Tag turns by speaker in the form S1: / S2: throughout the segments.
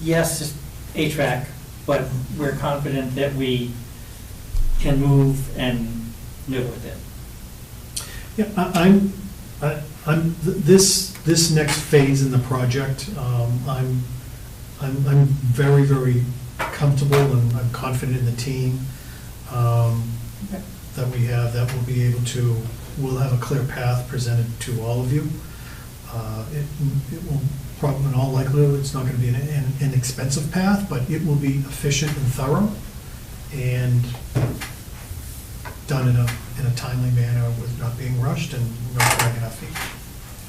S1: yes, it's HVAC, but we're confident that we can move and live with it.
S2: Yeah, I- I'm, I- I'm, th- this, this next phase in the project, um, I'm, I'm, I'm very, very comfortable and I'm confident in the team um, that we have, that we'll be able to, we'll have a clear path presented to all of you. Uh, It, it will probably, in all likelihood, it's not going to be an- an inexpensive path, but it will be efficient and thorough and done in a, in a timely manner with not being rushed and not dragging our feet.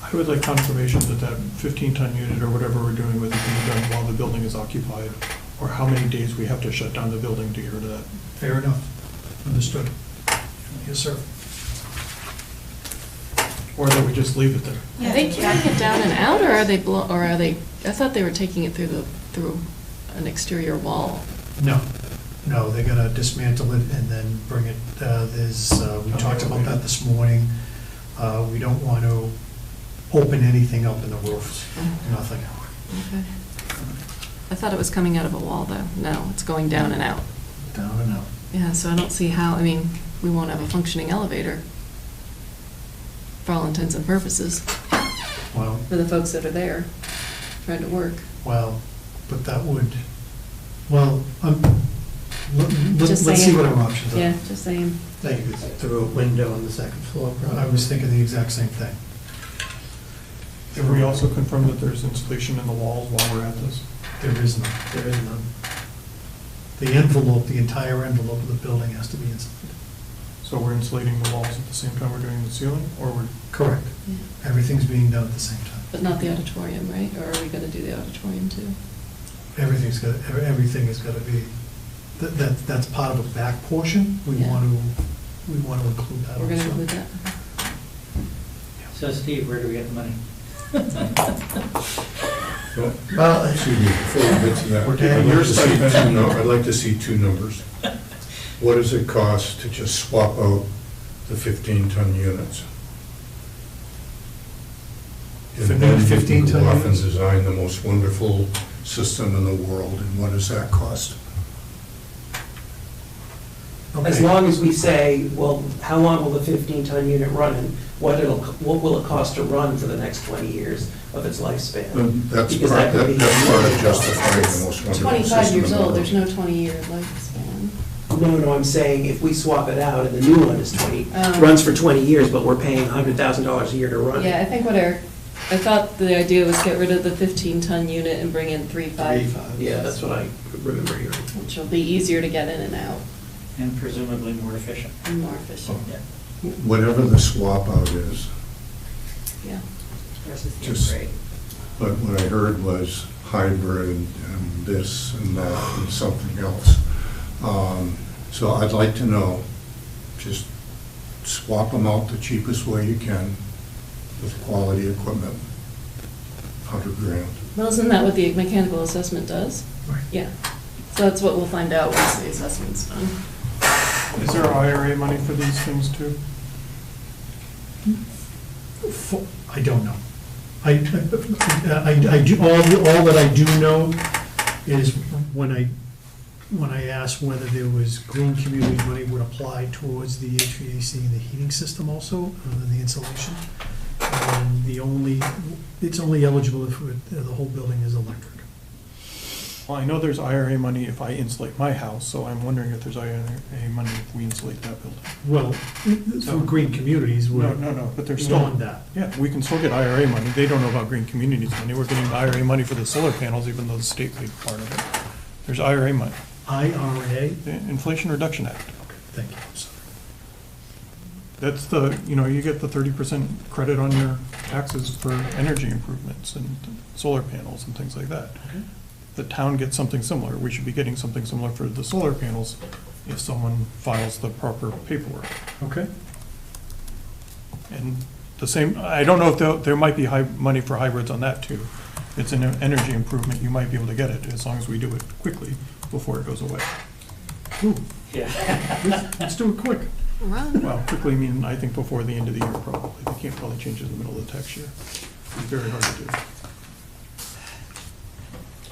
S3: I would like confirmation that that 15-ton unit or whatever we're doing with it being done while the building is occupied, or how many days we have to shut down the building to get rid of that.
S2: Fair enough. Understood. Yes, sir.
S3: Or that we just leave it there.
S4: Are they carrying it down and out, or are they, blo- or are they, I thought they were taking it through the, through an exterior wall.
S2: No, no, they're gonna dismantle it and then bring it, uh, there's, uh, we talked about that this morning. Uh, We don't want to open anything up in the roof, nothing.
S4: Okay. I thought it was coming out of a wall, though. No, it's going down and out.
S2: Down and out.
S4: Yeah, so I don't see how, I mean, we won't have a functioning elevator for all intents and purposes
S2: Well,
S4: for the folks that are there trying to work.
S2: well, but that would, well, um, let- let's
S4: Just
S2: let's see
S4: saying.
S2: what our options are.
S4: Yeah, just saying.
S5: They could throw a window on the second floor,
S2: I
S5: probably.
S2: was thinking the exact same thing.
S3: Did we also confirm that there's insulation in the walls while we're at this?
S2: There is none.
S5: There is none.
S2: The envelope, the entire envelope of the building has to be insulated.
S3: So we're insulating the walls at the same time we're doing the ceiling, or we're,
S2: Correct.
S4: Yeah.
S2: Everything's being done at the same time.
S4: But not the auditorium, right? Or are we gonna do the auditorium too?
S2: Everything's got, ev- everything is gonna be, that, that, that's part of a back portion. We
S4: Yeah.
S2: want to, we want to include that also.
S4: We're gonna include that?
S1: So Steve, where do we get the money?
S6: Well, Excuse me, before we get to that,
S2: We're taking
S6: I'd like
S2: your
S6: to see two, nu- I'd like to see two numbers. What does it cost to just swap out the 15-ton units?
S2: For
S6: And
S2: new
S6: then you
S2: 15-ton
S6: go off and
S2: units?
S6: design the most wonderful system in the world, and what does that cost?
S5: As
S2: Okay.
S5: long as we say, well, how long will the 15-ton unit run, and what it'll, what will it cost to run for the next 20 years of its lifespan?
S6: Um, That's
S5: Because
S6: part,
S5: that would
S6: that-
S5: be-
S6: that's part of justifying the most wonderful system in the world.
S4: Twenty-five years old, there's no twenty-year lifespan.
S5: No, no, I'm saying if we swap it out and the new one is 20,
S4: Um,
S5: runs for 20 years, but we're paying $100,000 a year to run
S4: Yeah, I
S5: it.
S4: think what our, I thought the idea was get rid of the fifteen-ton unit and bring in three-five,
S5: Yeah, that's what I remember hearing.
S4: which will be easier to get in and out
S1: And presumably more efficient.
S4: and more efficient,
S1: Yeah.
S6: Whatever the swap out is,
S4: yeah.
S1: Versus
S6: the Just- upgrade. But what I heard was hybrid and this and that and something else. Um, So I'd like to know, just swap them out the cheapest way you can with quality equipment, 100 grand.
S4: Well, isn't that what the mechanical assessment does?
S2: Right.
S4: Yeah, so that's what we'll find out once the assessment's done.
S3: is there IRA money for these things too?
S2: Fo- I don't know. I, I, I do, all, all that I do know is when I, when I asked whether there was green community money would apply towards the HVAC and the heating system also, other than the insulation. And the only, it's only eligible if it- the whole building is electric.
S3: Well, I know there's IRA money if I insulate my house, so I'm wondering if there's IRA money if we insulate that building.
S2: Well, through green communities,
S3: No,
S2: we're
S3: no, no, but there's still.
S2: on that.
S3: Yeah, we can still get IRA money. They don't know about green communities money. We're getting IRA money for the solar panels, even though the state paid part of it. There's IRA money,
S2: IRA,
S3: the Inflation Reduction Act.
S2: thank you, I'm sorry.
S3: That's the, you know, you get the thirty percent credit on your taxes for energy improvements and solar panels and things like that. The town gets something similar. We should be getting something similar for the solar panels if someone files the proper paperwork.
S2: Okay.
S3: And the same, I don't know if there, there might be high, money for hybrids on that too. It's an energy improvement, you might be able to get it, as long as we do it quickly before it goes away.
S2: Ooh,
S1: Yeah.
S2: Let's do it quick.
S4: Run.
S3: Well, quickly, I mean, I think before the end of the year probably. They can't probably change it in the middle of the tax year. It's very hard to do.